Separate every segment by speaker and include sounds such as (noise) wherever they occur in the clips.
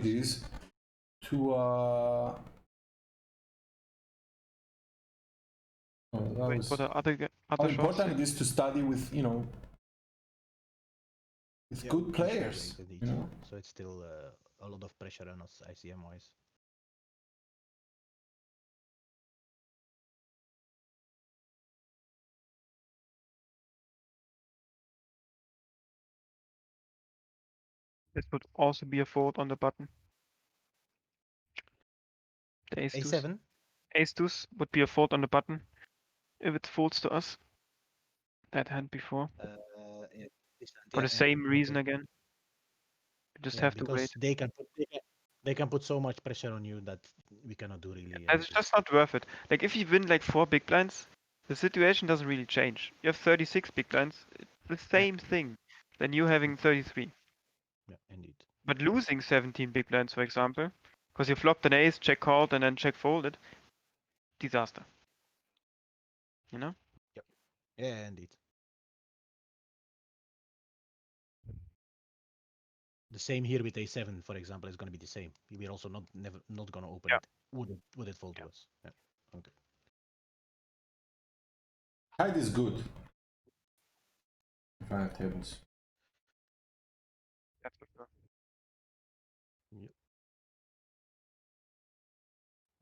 Speaker 1: these to uh oh, that
Speaker 2: Wait,
Speaker 1: was-
Speaker 2: what are other ge-
Speaker 1: how
Speaker 2: other shots?
Speaker 1: important it is to study with you know with
Speaker 3: Yeah,
Speaker 1: good
Speaker 3: we can share
Speaker 1: players
Speaker 3: link with each
Speaker 1: you know
Speaker 3: other, So it's still uh, a lot of pressure on us ICM wise.
Speaker 2: This would also be a fold on the button. The ace deuce.
Speaker 3: A7?
Speaker 2: Ace deuce would be a fold on the button if it folds to us. That hand before.
Speaker 3: Uh, yeah, this and
Speaker 2: For
Speaker 3: yeah,
Speaker 2: the
Speaker 3: yeah,
Speaker 2: same reason
Speaker 3: okay.
Speaker 2: again. You just
Speaker 3: Yeah,
Speaker 2: have to
Speaker 3: because
Speaker 2: wait.
Speaker 3: They can, put, they, can, they can put so much pressure on you that we cannot do really.
Speaker 2: It's
Speaker 3: anything.
Speaker 2: just not worth it. Like if you win like four big blinds, the situation doesn't really change. You have 36 big blinds, it's the same thing than you having 33.
Speaker 3: Yeah, indeed.
Speaker 2: But losing 17 big blinds, for example, because you flopped an ace, check called, and then check folded, disaster. You know?
Speaker 3: Yeah, indeed. The same here with A7, for example, is going to be the same. We're also not never not going to open
Speaker 2: Yeah.
Speaker 3: it. Would it would it fold to us? Yeah.
Speaker 1: hide is good final tables
Speaker 2: That's for sure.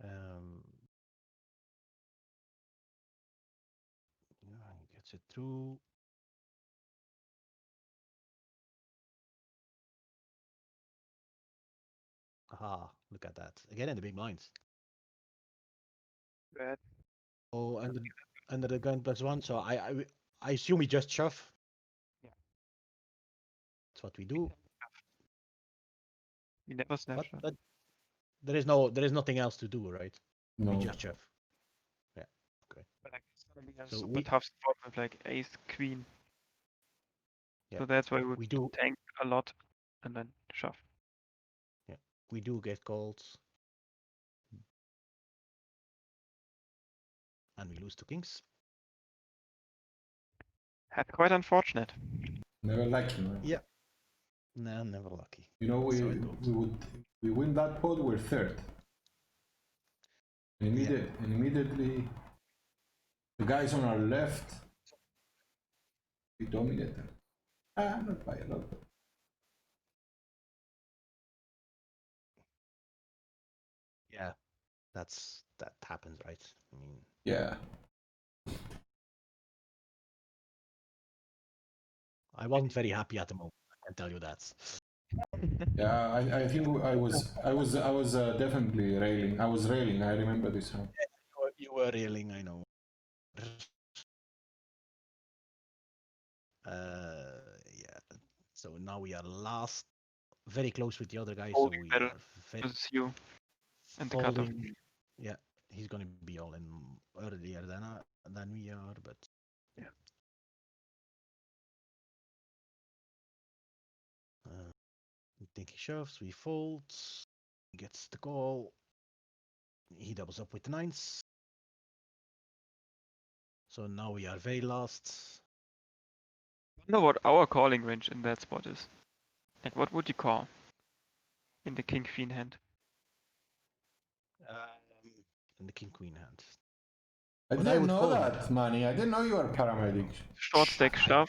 Speaker 3: Um, yeah, he gets it through. Aha, Ah, look at that. Again in the big blinds.
Speaker 2: Bad.
Speaker 3: Oh, under, under the gun plus one, so I, I, w- I assume we just shove.
Speaker 2: Yeah.
Speaker 3: That's what we do,
Speaker 2: You never snap
Speaker 3: but,
Speaker 2: shot.
Speaker 3: but there is no, there is nothing else to do, right?
Speaker 1: no
Speaker 3: We just shove.
Speaker 2: But like, it's gonna be a
Speaker 3: so
Speaker 2: super
Speaker 3: we-
Speaker 2: tough spot with like ace, queen.
Speaker 3: Yeah,
Speaker 2: So that's why we would
Speaker 3: We do,
Speaker 2: tank a lot and then shove.
Speaker 3: we do get calls. And we lose to kings.
Speaker 2: That's quite
Speaker 3: (laughs)
Speaker 2: unfortunate.
Speaker 1: never lucky man.
Speaker 3: Yeah. No, never lucky.
Speaker 1: you know we
Speaker 3: So I don't-
Speaker 1: we would we win that pod we're third and immediate, and immediately the guys on our left we dominate them ah not by a lot but
Speaker 3: Yeah, that's that happens, right? I mean,
Speaker 1: yeah
Speaker 3: I wasn't very happy at the moment. I can tell you that.
Speaker 1: Yeah, I, I think I was I was I was uh, definitely railing. I was railing. I remember this one.
Speaker 3: You were, you were reeling, I know. Uh, yeah. So now we are last, very close with the other guy. So
Speaker 2: Folding
Speaker 3: we
Speaker 2: better
Speaker 3: are very
Speaker 2: It's you and the cutoff.
Speaker 3: folding. Yeah, he's gonna be all in earlier than I, than we are, but
Speaker 2: Yeah.
Speaker 3: Uh, I think he shoves, we fold, he gets the call. He doubles up with the nines. So now we are very last.
Speaker 2: wonder what our calling range in that spot is. Like, what would you call in the king queen hand?
Speaker 3: Um, and the king queen hand.
Speaker 1: I
Speaker 3: But I
Speaker 1: didn't
Speaker 3: would
Speaker 1: know
Speaker 3: call
Speaker 1: that,
Speaker 3: it.
Speaker 1: Manny. I didn't know you were paramedic.
Speaker 2: Short stack shove.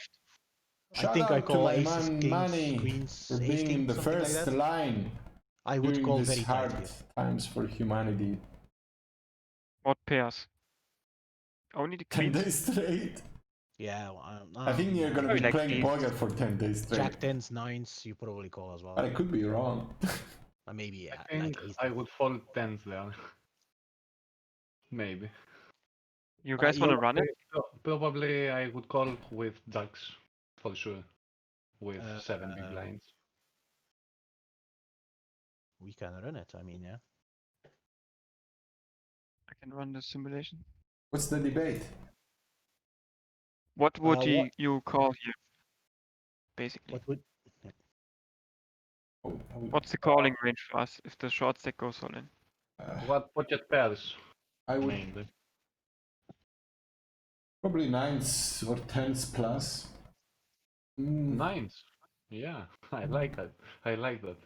Speaker 3: I
Speaker 1: Shout
Speaker 3: think
Speaker 1: out
Speaker 3: I
Speaker 1: to
Speaker 3: call
Speaker 1: my
Speaker 3: aces,
Speaker 1: man
Speaker 3: kings,
Speaker 1: Manny
Speaker 3: queens,
Speaker 1: For
Speaker 3: ace,
Speaker 1: being in
Speaker 3: king,
Speaker 1: the
Speaker 3: something like
Speaker 1: first
Speaker 3: that.
Speaker 1: line
Speaker 3: I would call
Speaker 1: during
Speaker 3: very
Speaker 1: these
Speaker 3: tight
Speaker 1: hard
Speaker 3: here.
Speaker 1: times for humanity. (laughs)
Speaker 2: What pairs? Only the
Speaker 1: Ten
Speaker 2: queen.
Speaker 1: days straight.
Speaker 3: Yeah, well, um,
Speaker 1: I think
Speaker 3: um,
Speaker 1: you're gonna
Speaker 2: Probably
Speaker 1: be
Speaker 2: like
Speaker 1: playing
Speaker 2: these.
Speaker 1: poker for ten days straight.
Speaker 3: Jack tens, nines. You probably call as well.
Speaker 1: But I could be wrong.
Speaker 3: Or maybe yeah,
Speaker 4: I think
Speaker 3: like ace
Speaker 4: I
Speaker 3: nine.
Speaker 4: would fold tens there. (laughs) Maybe.
Speaker 2: You
Speaker 3: Uh,
Speaker 2: guys want to
Speaker 3: you-
Speaker 2: run it?
Speaker 4: Pro- Probably I would call with jacks for sure. With
Speaker 3: Uh,
Speaker 4: seven big blinds.
Speaker 3: We can run it. I mean, yeah.
Speaker 2: I can run the simulation.
Speaker 1: What's the debate?
Speaker 2: What would
Speaker 3: Uh,
Speaker 2: you,
Speaker 3: what-
Speaker 2: you call here? Basically,
Speaker 3: What would
Speaker 1: Oh, I, would-
Speaker 2: what's the calling range for us if the short stack goes all in?
Speaker 1: uh,
Speaker 4: What budget pairs
Speaker 1: I would
Speaker 4: mainly?
Speaker 1: probably nines or tens plus. Mm,
Speaker 4: (laughs) Nines. Yeah, I like that. I like that.